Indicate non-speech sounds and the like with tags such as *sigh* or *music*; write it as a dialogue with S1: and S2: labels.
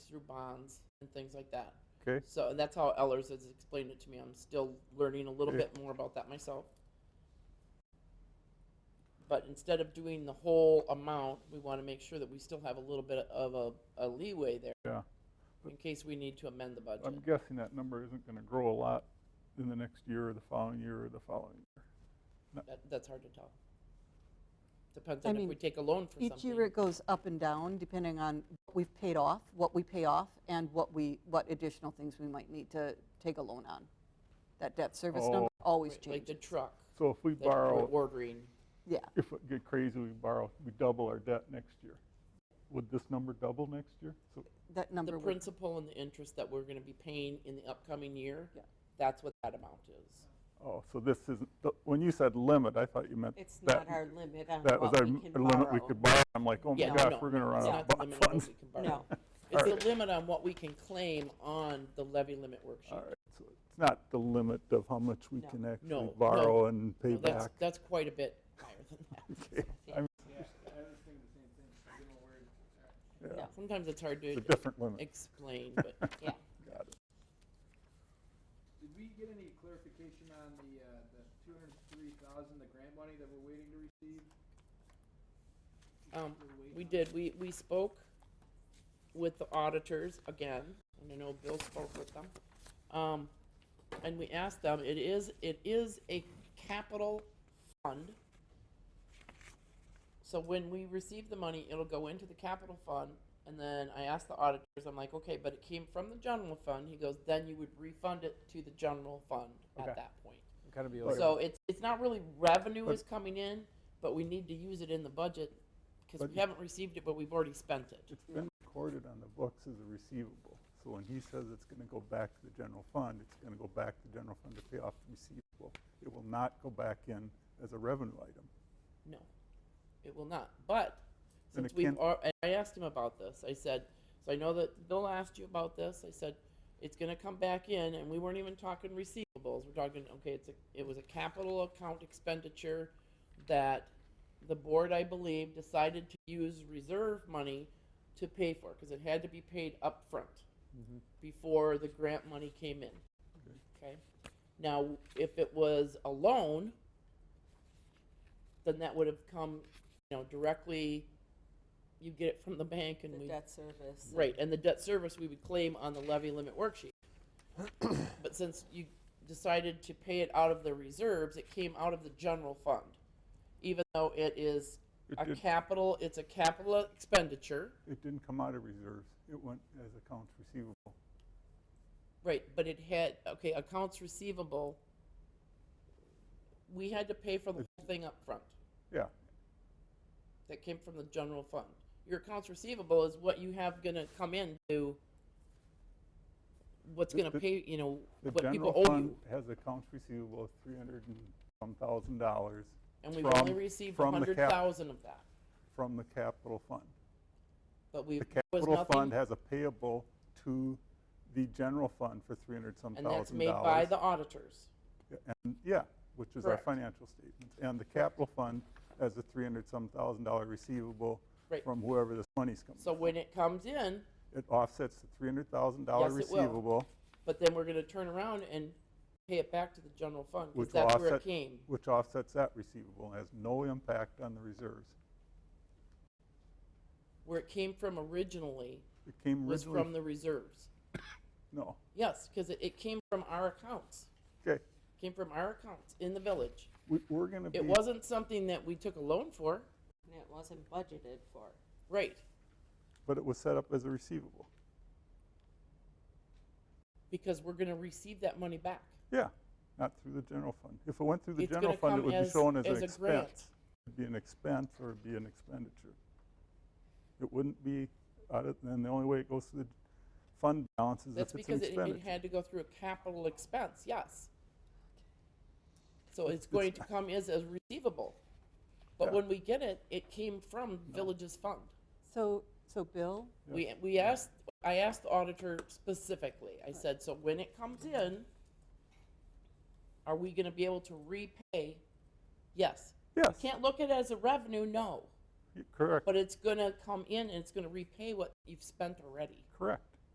S1: through bonds and things like that.
S2: Okay.
S1: So and that's how Ellers has explained it to me. I'm still learning a little
S2: Okay.
S1: bit more about that myself. But instead of doing the whole amount, we want to make sure that we still have a little bit of a, a leeway there
S2: Yeah.
S1: in case we need to amend the budget.
S2: I'm guessing that number isn't gonna grow a lot in the next year or the following year or the following year.
S1: That, that's hard to tell. Depends
S3: I
S1: on if
S3: mean,
S1: we take a loan for
S3: Each year
S1: something.
S3: it goes up and down depending on what we've paid off, what we pay off, and what we, what additional things we might need to take a loan on. That debt service
S2: Oh.
S3: number always
S1: Right, Like the
S3: changes.
S1: truck
S2: So if we
S1: that we're
S2: borrow,
S1: ordering.
S3: Yeah,
S2: if it get crazy, we borrow, we double our debt next year. Would this number double next year? So,
S3: that
S1: The
S3: number would,
S1: principal and the interest that we're gonna be paying in the upcoming year.
S3: Yeah.
S1: That's what that amount is.
S2: oh, so this isn't, th- when you said limit, I thought you meant
S4: It's
S2: that,
S4: not our limit on
S2: that was
S4: what
S2: our
S4: we
S2: m-
S4: can
S2: limit we
S4: borrow.
S2: could borrow. I'm like, oh my
S1: Yeah,
S2: gosh,
S1: no,
S2: we're gonna run
S1: It's
S2: out
S1: not the
S2: of
S1: limit on what
S2: funds.
S1: we can
S4: No,
S1: *laughs* borrow. It's the limit on what we can claim on the levy limit
S2: *laughs* All
S1: worksheet.
S2: right, so it's not the limit of how much we
S4: No.
S2: can actually
S1: No,
S2: borrow and pay
S1: No, That's,
S2: back. *laughs*
S1: that's quite a bit higher than that.
S2: Okay, I'm- Yeah,
S4: No.
S1: Sometimes it's hard
S2: it's a
S1: to
S2: different limit.
S1: explain,
S2: *laughs*
S1: but
S4: yeah.
S2: Got it.
S5: Did we get any clarification on the, uh, the two hundred and three thousand, the grant money that we're waiting to receive?
S1: Um,
S5: We're waiting
S1: We
S5: on-
S1: did, we, we spoke with the auditors again, and I know Bill spoke with them. Um, and we asked them, it is, it is a capital fund. So when we receive the money, it'll go into the capital fund, and then I asked the auditors, I'm like, okay, but it came from the general fund, he goes, then you would refund it to the general fund
S6: Okay.
S1: at that point.
S6: Gotta be
S2: Right.
S6: like,
S1: So it's, it's not really revenue
S2: Oh, But-
S1: is coming in, but we need to use it in the budget, because
S2: But-
S1: we haven't received it, but we've already spent it.
S2: It's been recorded on the books as a receivable. So when he says it's going to go back to the general fund, it's going to go back to the general fund to pay off the receivable. It will not go back in as a revenue item.
S1: No, it will not, but
S2: Then
S1: since
S2: it
S1: we've,
S2: can't-
S1: al- and I asked him about this, I said, so I know that Bill asked you about this, I said, it's gonna come back in, and we weren't even talking receivables, we're talking, okay, it's a, it was a capital account expenditure that the board, I believe, decided to use reserve money to pay for, because it had to be paid upfront.
S2: Mm-hmm.
S1: before the grant money came in. Okay? Now, if it was a loan, then that would have come, you know, directly, you get it from the bank and
S4: The
S1: we.
S4: debt service. and-
S1: Right, and the debt service we would claim on the levy limit
S2: *coughs*
S1: worksheet. But since you decided to pay it out of the reserves, it came out of the general fund. Even though it is
S2: It
S1: a
S2: did-
S1: capital, it's a capital expenditure,
S2: It didn't come out of reserves. It went as accounts receivable.
S1: Right, but it had, okay, accounts receivable, we had to pay for the whole thing up front.
S2: Yeah,
S1: That came from the general fund. Your accounts receivable is what you have gonna come in to, what's
S2: The-
S1: gonna
S2: the-
S1: pay, you know,
S2: the
S1: what people
S2: general
S1: owe
S2: fund
S1: you.
S2: has accounts receivable of three hundred and some thousand dollars
S1: And we've only
S2: from-
S1: received a
S2: from the
S1: hundred
S2: cap-
S1: thousand of that,
S2: from the capital fund.
S1: but we,
S2: The
S1: was
S2: capital
S1: nothing,
S2: fund has a payable to the general fund for three hundred some
S1: and
S2: thousand dollars.
S1: that's made by the auditors.
S2: Yeah, And, yeah, which is our
S1: Correct.
S2: financial statements. And the capital fund has a three hundred some thousand dollar receivable
S1: Right.
S2: from whoever this money's coming.
S1: So
S2: from.
S1: when it comes in,
S2: It offsets the three hundred thousand dollar
S1: Yes, it will.
S2: receivable,
S1: but then we're gonna turn around and pay it back to the general fund,
S2: which
S1: because
S2: will
S1: that's where
S2: offset,
S1: it came.
S2: which offsets that receivable, and has no impact on the reserves.
S1: Where it came from originally
S2: It came
S1: was from
S2: originally,
S1: the reserves.
S2: no,
S1: Yes, because it, it came from our accounts,
S2: okay,
S1: came from our accounts in the village.
S2: we, we're gonna be.
S1: It wasn't something that we took a loan for,
S4: And it wasn't budgeted for.
S1: right?
S2: But it was set up as a receivable,
S1: Because we're gonna receive that money back.
S2: yeah, not through the general fund. If it went through the
S1: It's
S2: general
S1: gonna
S2: fund, it
S1: come
S2: would be
S1: as,
S2: shown as an
S1: as a grant.
S2: expense. It'd be an expense or it'd be an expenditure. It wouldn't be, out of- then the only way it goes to the fund balance is
S1: That's
S2: if it's an
S1: because it, it
S2: expenditure.
S1: had to go through a capital expense, yes. So it's going to come as a receivable. But
S2: Yeah.
S1: when we get it, it came from village's fund.
S3: so, so Bill,
S1: We, we asked, I asked the auditor specifically, I said, so when it comes in, are we gonna be able to repay? Yes.
S2: Yes,
S1: Can't look at it as a revenue, no,
S2: y- correct,
S1: but it's gonna come in and it's gonna repay what you've spent already.
S2: correct.